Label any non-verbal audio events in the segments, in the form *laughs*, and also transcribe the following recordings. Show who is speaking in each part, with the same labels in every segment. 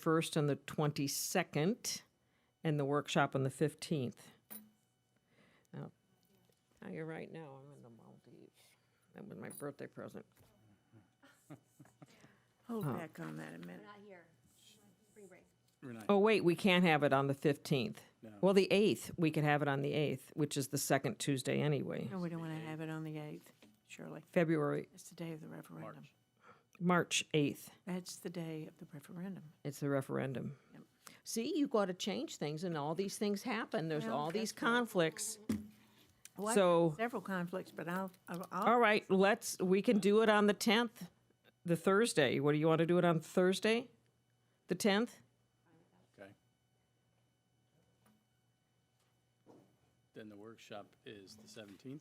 Speaker 1: 1st and the 22nd, and the workshop on the 15th. Now, now you're right now, I'm in the Maldives. That was my birthday present.
Speaker 2: Hold back on that a minute.
Speaker 3: Not here. Free break.
Speaker 4: We're not-
Speaker 1: Oh, wait, we can't have it on the 15th.
Speaker 4: No.
Speaker 1: Well, the 8th, we could have it on the 8th, which is the second Tuesday anyway.
Speaker 2: No, we don't want to have it on the 8th, surely.
Speaker 1: February,
Speaker 2: It's the day of the referendum.
Speaker 1: March 8th,
Speaker 2: That's the day of the referendum.
Speaker 1: it's the referendum. See, you got to change things, and all these things happen. There's
Speaker 2: Well,
Speaker 1: all these
Speaker 2: that's right.
Speaker 1: conflicts.
Speaker 2: Well, I've
Speaker 1: So-
Speaker 2: had Several conflicts, but I'll, I'll- I'll,
Speaker 1: All right, let's, we can do it on the 10th, the Thursday. What, do you want to do it on Thursday? The 10th?
Speaker 4: Okay. Then the workshop is the 17th?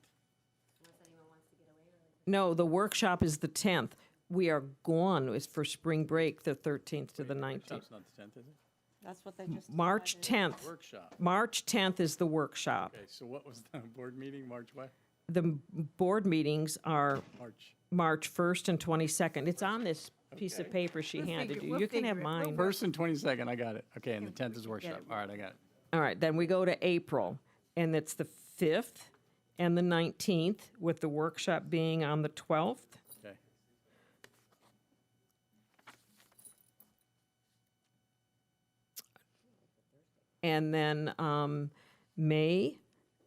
Speaker 1: No, the workshop is the 10th. We are gone, it's for spring break, the 13th to the 19th.
Speaker 4: Workshop's not the 10th, is it?
Speaker 5: That's what they just.
Speaker 1: March 10th,
Speaker 4: Workshop.
Speaker 1: March 10th is the workshop.
Speaker 4: Okay, so what was the *laughs* board meeting, March what?
Speaker 1: The m- board meetings are
Speaker 4: March.
Speaker 1: March 1st and 22nd. It's on this piece of
Speaker 4: Okay.
Speaker 1: paper she
Speaker 2: We'll
Speaker 1: handed
Speaker 2: figure-
Speaker 1: you.
Speaker 2: we'll
Speaker 1: You can have
Speaker 2: figure it. We'll
Speaker 1: mine.
Speaker 4: First and 22nd, I got it. Okay, and the 10th is workshop. All right, I got it.
Speaker 1: All right, then we go to April, and it's the 5th and the 19th, with the workshop being on the 12th.
Speaker 4: Okay.
Speaker 1: And then um, May,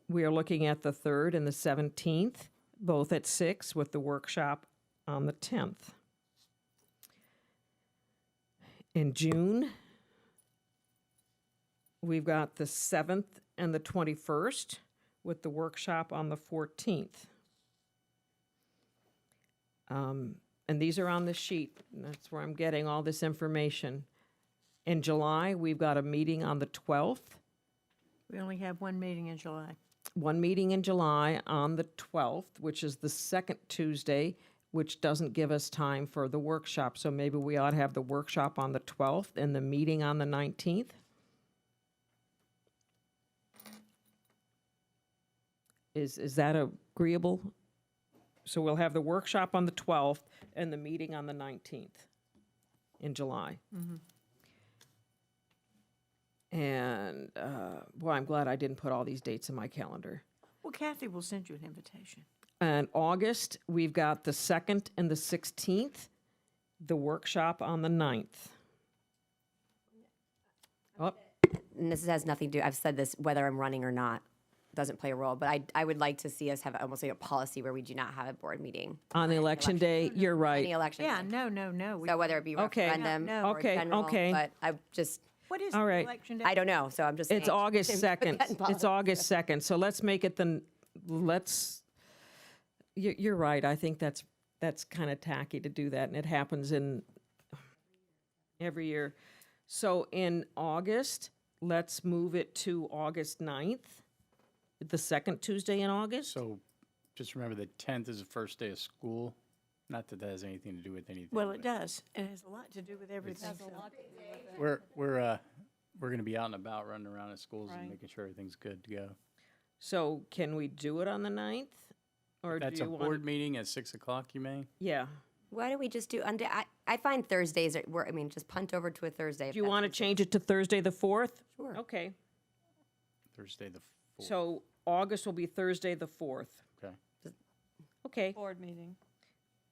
Speaker 1: we are looking at the 3rd and the 17th, both at 6, with the workshop on the 10th. In June, we've got the 7th and the 21st, with the workshop on the 14th. Um, And these are on the sheet, and that's where I'm getting all this information. In July, we've got a meeting on the 12th,
Speaker 2: we only have one meeting in July.
Speaker 1: one meeting in July on the 12th, which is the second Tuesday, which doesn't give us time for the workshop. So maybe we ought to have the workshop on the 12th and the meeting on the 19th. Is, is that agreeable? So we'll have the workshop on the 12th and the meeting on the 19th in July. And, uh, boy, I'm glad I didn't put all these dates in my calendar.
Speaker 2: Well, Kathy will send you an invitation.
Speaker 1: And August, we've got the 2nd and the 16th, the workshop on the 9th. Oh,
Speaker 5: And this has nothing to do, I've said this, whether I'm running or not, doesn't play a role, but I, I would like to see us have almost like a policy where we do not have a board meeting.
Speaker 1: on the election day, you're
Speaker 5: Any
Speaker 1: right.
Speaker 5: election.
Speaker 2: Yeah,
Speaker 5: day.
Speaker 2: no, no, no. we-
Speaker 5: So whether it be
Speaker 1: Okay.
Speaker 5: referendum
Speaker 2: No, no.
Speaker 5: or
Speaker 1: Okay,
Speaker 5: general,
Speaker 1: okay.
Speaker 5: but I just,
Speaker 2: What is the
Speaker 1: all right.
Speaker 2: election day?
Speaker 5: I don't know, so I'm just.
Speaker 1: It's
Speaker 5: saying.
Speaker 1: August *laughs*
Speaker 5: Put
Speaker 1: 2nd.
Speaker 5: that in
Speaker 1: It's August 2nd. So let's make it the, n- let's, you- you're right. I think that's, that's kind of tacky to do that, and it happens in every year. So in August, let's move it to August 9th, the second Tuesday in August.
Speaker 4: So just remember the 10th is the first day of school. Not that that has anything to do with anything.
Speaker 2: Well, it
Speaker 4: but
Speaker 2: does. It has a lot to do with everything. so-
Speaker 4: We're, we're, uh, we're going to be out and about, running around at schools and making sure everything's good to go.
Speaker 1: So can we do it on the 9th? Or do
Speaker 4: That's a
Speaker 1: you want,
Speaker 4: board meeting at 6 o'clock, you may?
Speaker 1: yeah.
Speaker 5: Why don't we just do, und- I, I find Thursdays, are- we're, I mean, just punt over to a Thursday. if
Speaker 1: Do you
Speaker 5: that's
Speaker 1: want to change it to Thursday, the 4th?
Speaker 5: Sure.
Speaker 1: Okay.
Speaker 4: Thursday, the 4th.
Speaker 1: So August will be Thursday, the 4th.
Speaker 4: Okay.
Speaker 1: Okay,
Speaker 6: Board meeting.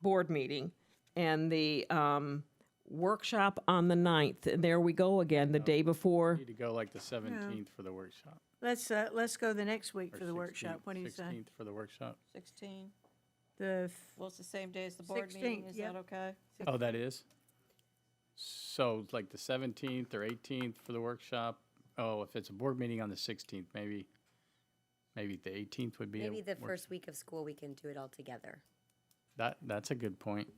Speaker 1: board meeting. And the um, workshop on the 9th. And there we go again, the day before.
Speaker 4: Need to go like the 17th for the workshop.
Speaker 2: Let's, uh, let's go the next week for the
Speaker 4: 16th
Speaker 2: workshop. What do you say?
Speaker 4: 16th for the workshop.
Speaker 6: 16.
Speaker 2: The, f-
Speaker 6: Well, it's the same day as the board meeting.
Speaker 2: 16,
Speaker 6: Is
Speaker 2: yep.
Speaker 6: that okay?
Speaker 4: Oh, that is? So like the 17th or 18th for the workshop? Oh, if it's a board meeting on the 16th, maybe, maybe the 18th would be. a
Speaker 5: Maybe the
Speaker 4: work-
Speaker 5: first week of school, we can do it all together.
Speaker 4: That, that's a good point.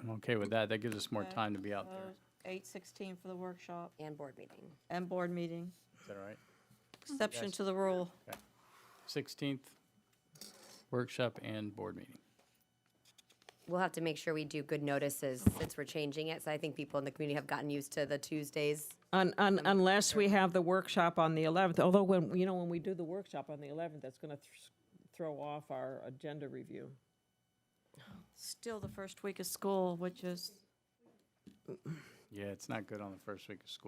Speaker 4: I'm okay with that. That gives us more time to be out there.
Speaker 2: Uh,
Speaker 6: 8:16 for the workshop
Speaker 5: and board meeting.
Speaker 6: and board meeting.
Speaker 4: Is that all right?
Speaker 6: Exception to the rule.
Speaker 4: 16th, workshop and board meeting.
Speaker 5: We'll have to make sure we do good notices since we're changing it. So I think people in the community have gotten used to the Tuesdays.
Speaker 1: Un- un- Unless we have the workshop on the 11th. Although when, you know, when we do the workshop on the 11th, that's going to throw off our agenda review.
Speaker 6: Still the first week of school, which is
Speaker 4: Yeah, it's not good on the first week of school.